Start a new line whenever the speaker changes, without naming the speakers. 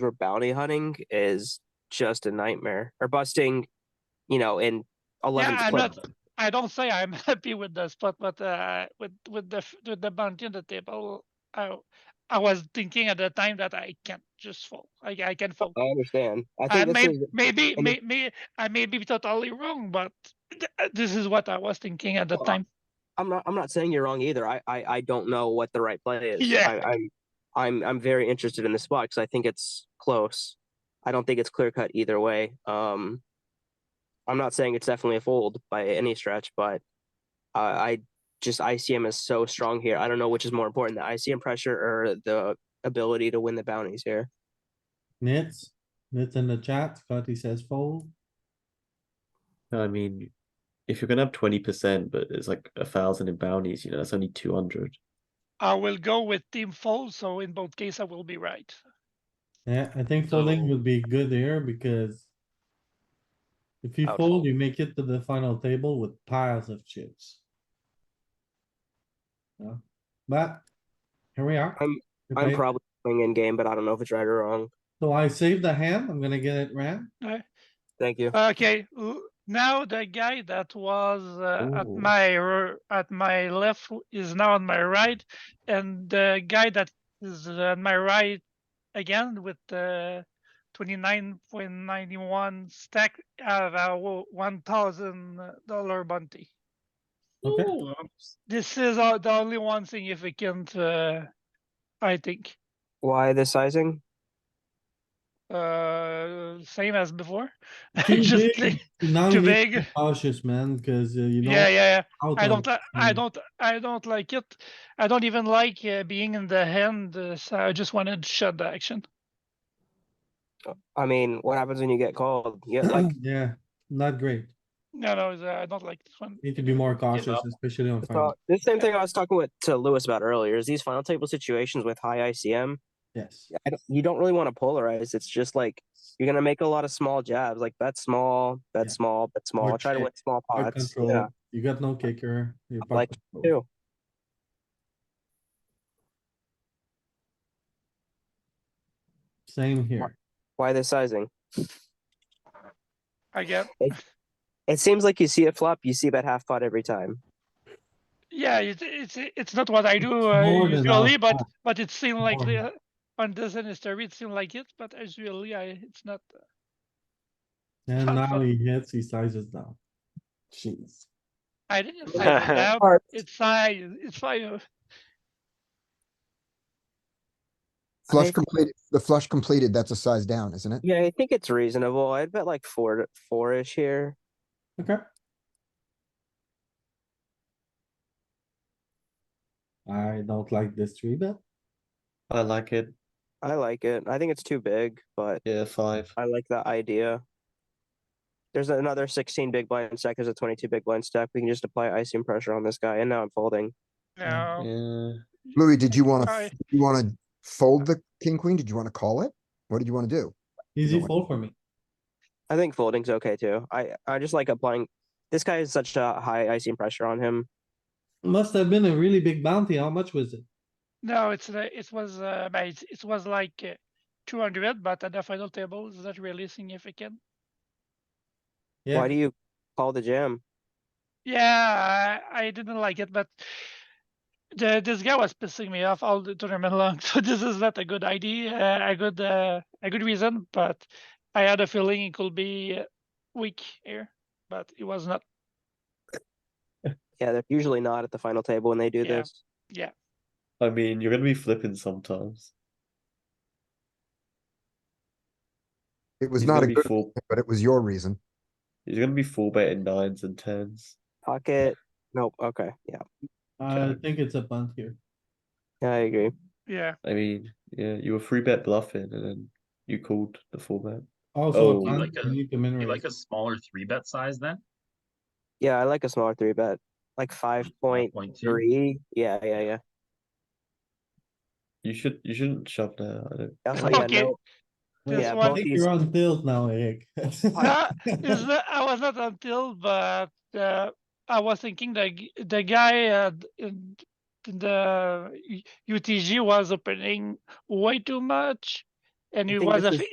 where bounty hunting is just a nightmare or busting, you know, in eleven.
Yeah, I'm not, I don't say I'm happy with the spot, but uh, with with the f- with the bounty on the table, I I was thinking at the time that I can't just fold. I I can fold.
I understand. Uh, I
I
think this
may,
is
maybe
and-
may, may, I may be totally wrong, but th- uh, this is what I was thinking at the
Well,
time.
I'm not. I'm not saying you're wrong either. I. I, I don't know what the right play is.
Yeah.
I, I'm. I'm. I'm very interested in this spot because I think it's close. I don't think it's clear cut either way. Um, I'm not saying it's definitely a fold by any stretch, but uh, I just ICM is so strong here. I don't know which is more important, the ICM pressure or the ability to win the bounties here.
Nits, Nits in the chat, Scotty says fold.
No, I mean, if you're gonna have twenty percent, but it's like a thousand in bounties, you know, that's only two hundred.
I will go with team fold, so in both cases I will be right.
Yeah, I think folding
So-
would be good here because if you
Oh,
I would
fold,
fold.
you make it to the final table with piles of chips. Yeah, But here we are.
I'm-
We
I'm
played.
probably playing in game, but I don't know if it's right or wrong.
So I saved the hand. I'm gonna get it ran.
Thank you.
Okay, l- now the guy that was uh, at
Ooh.
my r- at my left w- is now on my right, and the guy that is on my right again with the twenty nine point ninety one stack have a wo- one thousand dollar bounty.
Okay,
This is uh, the only one significant, uh, I think.
Why the sizing?
Uh, same as before.
Too
Just
big.
think-
now
too
you need to
big.
be cautious, man, cuz you know.
Yeah, yeah, yeah.
how
I
to-
don't, li- I
Mm.
don't, I don't like it. I don't even like uh, being in the hand, uh, so I just wanted to shut the action.
I mean, what happens when you get called? Yeah, like
Yeah, not great.
No, no, it's, uh, I don't like this one.
Need to be more cautious, especially on
It's
final.
about- the same thing I was talking with to Lewis about earlier is these final table situations with high ICM.
Yes,
I don't, you don't really want to polarize. It's just like you're gonna make a lot of small jabs, like bet small, bet
Yeah.
small, bet small. Try to
check,
win small
Hard
pots. Yeah,
control. You got no kicker. you
like
pop control.
too.
Same here.
Why the sizing?
I get,
It seems like you see it flop, you see about half pot every time.
yeah, it's it's it's not what I do uh,
more than
usually,
half
but
past.
but it seemed like
more than
the, uh, on this history it seemed like it, but as usually I it's not.
And
Fuck,
now
fuck.
he hits, he sizes down. Jeez.
I didn't say it out.
Heart.
It's fine. It's fine.
Flush
think-
completed, the flush completed, that's a size down, isn't it?
Yeah, I think it's reasonable. I'd bet like four to four-ish here.
Okay. I don't like this three bet.
I like it.
I like it. I think it's too big, but
Yeah, five.
I like that idea. There's another 16 big blind stack. There's a 22 big blind stack. We can just apply icing pressure on this guy, and now I'm folding.
No,
Yeah.
Louis, did you wanna,
Sorry.
f- you wanna fold the king, queen? Did you wanna call it? What did you wanna do?
Easy
No way.
fold for me.
I think folding's okay too. I I just like applying. This guy is such a high icing pressure on him.
Must have been a really big bounty. How much was it?
no, it's uh, it was uh, but it, it was like uh, two hundred, but at the final table is not really significant.
Yeah,
Why do you call the jam?
Yeah, I, I didn't like it, but the, this guy was pissing me off all the tournament long. So this is not a good idea, uh, a good uh, a good reason. But I had a feeling it could be uh, weak here, but it was not.
Yeah, they're usually not at the final table when they do
Yeah.
this.
I mean, you're gonna be flipping sometimes.
It was
He's
not
gonna
a
be
good,
full-
but it was your reason.
He's gonna be full betting nines and tens.
Pocket. Nope. Okay. Yeah.
I think it's a punt here.
Yeah, I agree.
Yeah,
I mean, yeah, you were three bet bluffing, and then you called the full bet.
Also,
Oh.
a
You
punt,
like a-
you need to
You
minimize.
like a smaller three bet size then?
Yeah, I like a smaller three bet, like five point
Point two.
three. Yeah, yeah, yeah.
You should, you shouldn't shove there. I don't.
Also, yeah,
Okay.
no.
this
Yeah,
I
one
both
think
these-
you're on tilt now, Eric.
No, is not, I was not until, but uh, I was thinking the g- the guy uh, d- in in the U- UTG was opening way too much, and
I
he
think
was
this
a
is-